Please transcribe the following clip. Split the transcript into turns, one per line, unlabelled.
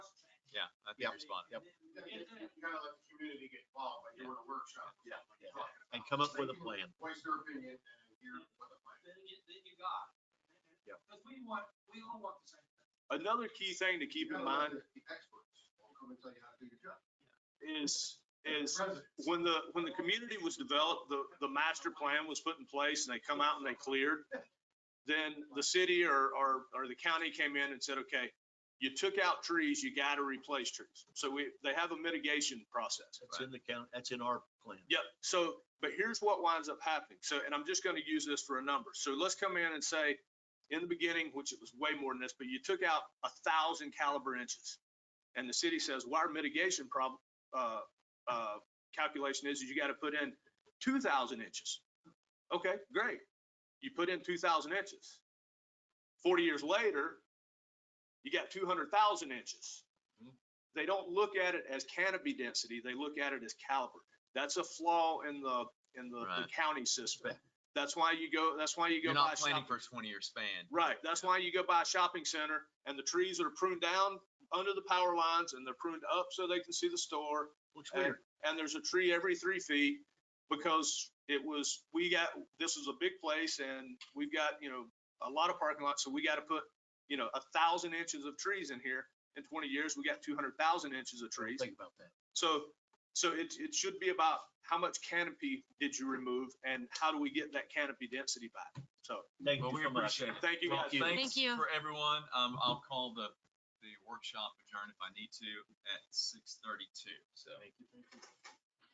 Yeah, I
Yep.
think responded.
Yep.
Kind of let the community get involved, like you were in a workshop.
Yeah.
like you're talking
And
about.
come up
So
with
they
a
can
plan.
Voice their opinion and hear what the plan
Then you, then you got.
Yep.
Because we want, we all want the same thing.
Another key thing to
is.
keep
You
in
gotta let
mind
The the experts will come and tell you how to do your job.
is, is
President.
when the, when the community was developed, the, the master plan was put in place and they come out and they cleared, then the city or, or, or the county came in and said, okay, you took out trees, you gotta replace trees. So we, they have a mitigation process.
That's in the count, that's in our plan.
Yep, so, but here's what winds up happening. So, and I'm just gonna use this for a number. So let's come in and say, in the beginning, which it was way more than this, but you took out a thousand caliber inches. And the city says, well, our mitigation problem, uh, uh, calculation is, is you gotta put in two thousand inches. Okay, great. You put in two thousand inches. Forty years later, you got two hundred thousand inches.
Mm-hmm.
Mhm.
They don't look at it as canopy density, they look at it as caliber. That's a flaw in the, in the the
Right.
county system. That's why you go, that's why you go
You're
buy
not
a
planning
shopping.
for a twenty-year span.
Right, that's why you go by a shopping center and the trees that are pruned down under the power lines and they're pruned up so they can see the store.
Looks
And,
weird.
Uh,
and there's a tree every three feet because it was, we got, this is a big place and we've got, you know, a lot of parking lots, so we gotta put, you know, a thousand inches of trees in here. In twenty years, we got two hundred thousand inches of trees.
Think about that.
So, so it, it should be about how much canopy did you remove and how do we get that canopy density back? So,
Thank
Well,
you
we
so much.
appreciate it.
thank you
Well,
guys.
you.
Thanks
Thank you.
for everyone. Um, I'll call the, the workshop adjourned if I need to at six thirty-two, so.